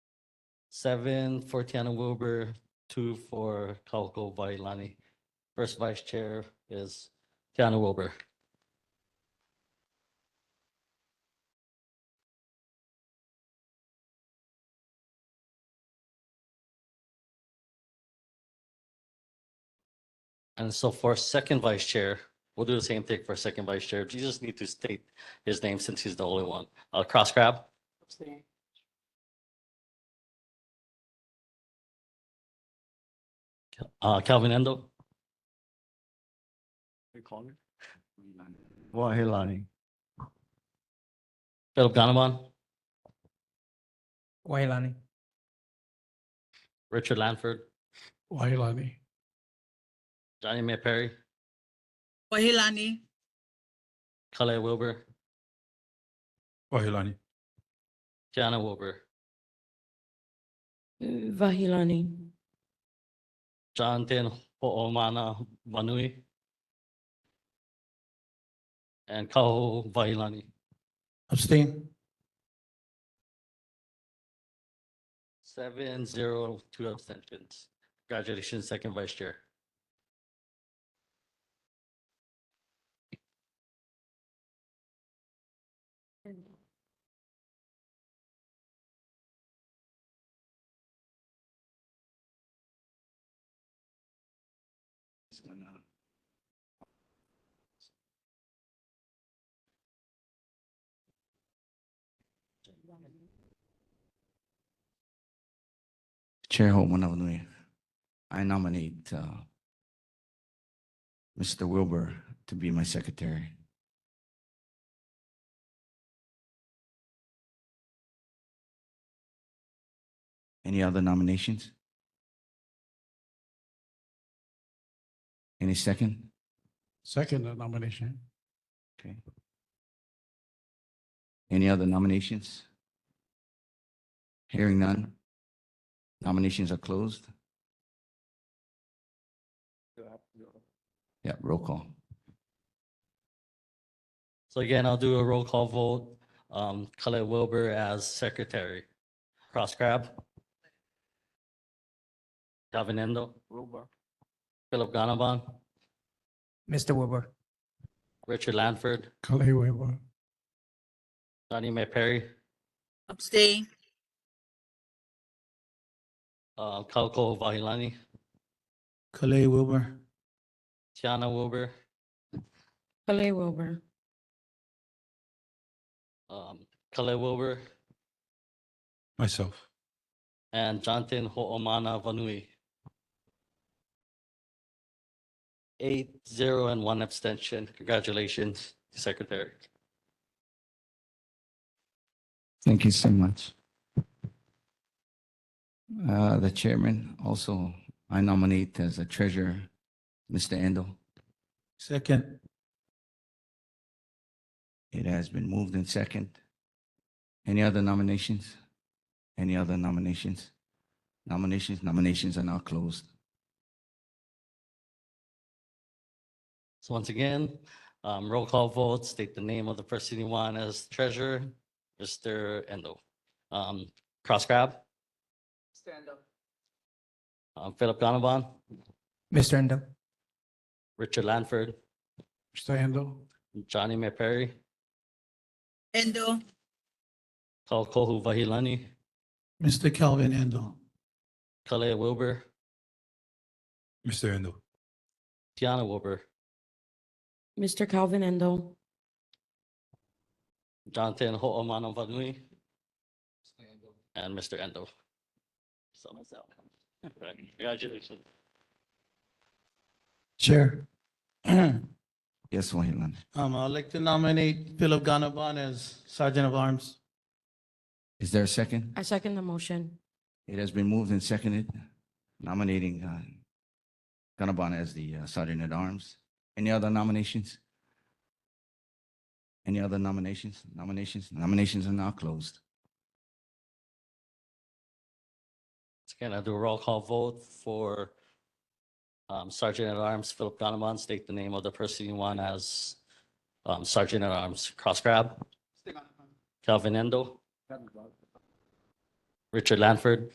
Seven for Tiana Wilbur, two for Kauko Vailani. First Vice Chair is Tiana Wilbur. And so for second vice chair, we'll do the same thing for second vice chair. You just need to state his name since he's the only one. Uh, cross grab. Uh, Calvin Endo. Wahilani. Philip Ganaban, Wailani. Richard Lanford, Wailani. Johnny May Perry, Wahilani. Kalea Wilbur, Wailani. Tiana Wilbur, Vahilani. Jonathan Ho'omana Vanui, and Kaho Vailani. Abstain. Seven, zero, two abstentions. Congratulations, second vice chair. Chair Ho'oponopono, I nominate uh, Mr. Wilbur to be my secretary. Any other nominations? Any second? Second nomination. Okay. Any other nominations? Hearing none. Nominations are closed. Yeah, roll call. So again, I'll do a roll call vote. Um, Colette Wilbur as secretary. Cross grab. Calvin Endo. Philip Ganaban, Mr. Wilbur. Richard Lanford, Kalei Wilbur. Donnie Mae Perry, Abstain. uh, Kauko Vahilani, Kalei Wilbur. Tiana Wilbur, Kalei Wilbur. um, Colette Wilbur, Myself. and Jonathan Ho'omana Vanui. Eight, zero, and one abstention. Congratulations, secretary. Thank you so much. Uh, The chairman, also, I nominate as a treasurer, Mr. Endo. Second. It has been moved in second. Any other nominations? Any other nominations? Nominations, nominations are now closed. So once again, um, roll call vote, state the name of the person you want as treasurer, Mr. Endo. Um, cross grab, Stand up. um, Philip Ganaban, Mr. Endo. Richard Lanford, Mr. Endo. Johnny May Perry, Endo. Kaukohu Vahilani, Mr. Calvin Endo. Kalea Wilbur, Mr. Endo. Tiana Wilbur, Mr. Calvin Endo. Jonathan Ho'omana Vanui, and Mr. Endo. So myself. Congratulations. Chair. Um, Yes, Wahilan. I'd like to nominate Philip Ganaban as Sergeant of Arms. Is there a second? I second the motion. It has been moved and seconded, nominating uh, Gannabon as the uh, Sergeant at Arms. Any other nominations? Any other nominations? Nominations? Nominations are now closed. Again, I'll do a roll call vote for um, Sergeant at Arms Philip Donovan. State the name of the person you want as um, Sergeant at Arms. Cross grab. Calvin Endo. Richard Lanford.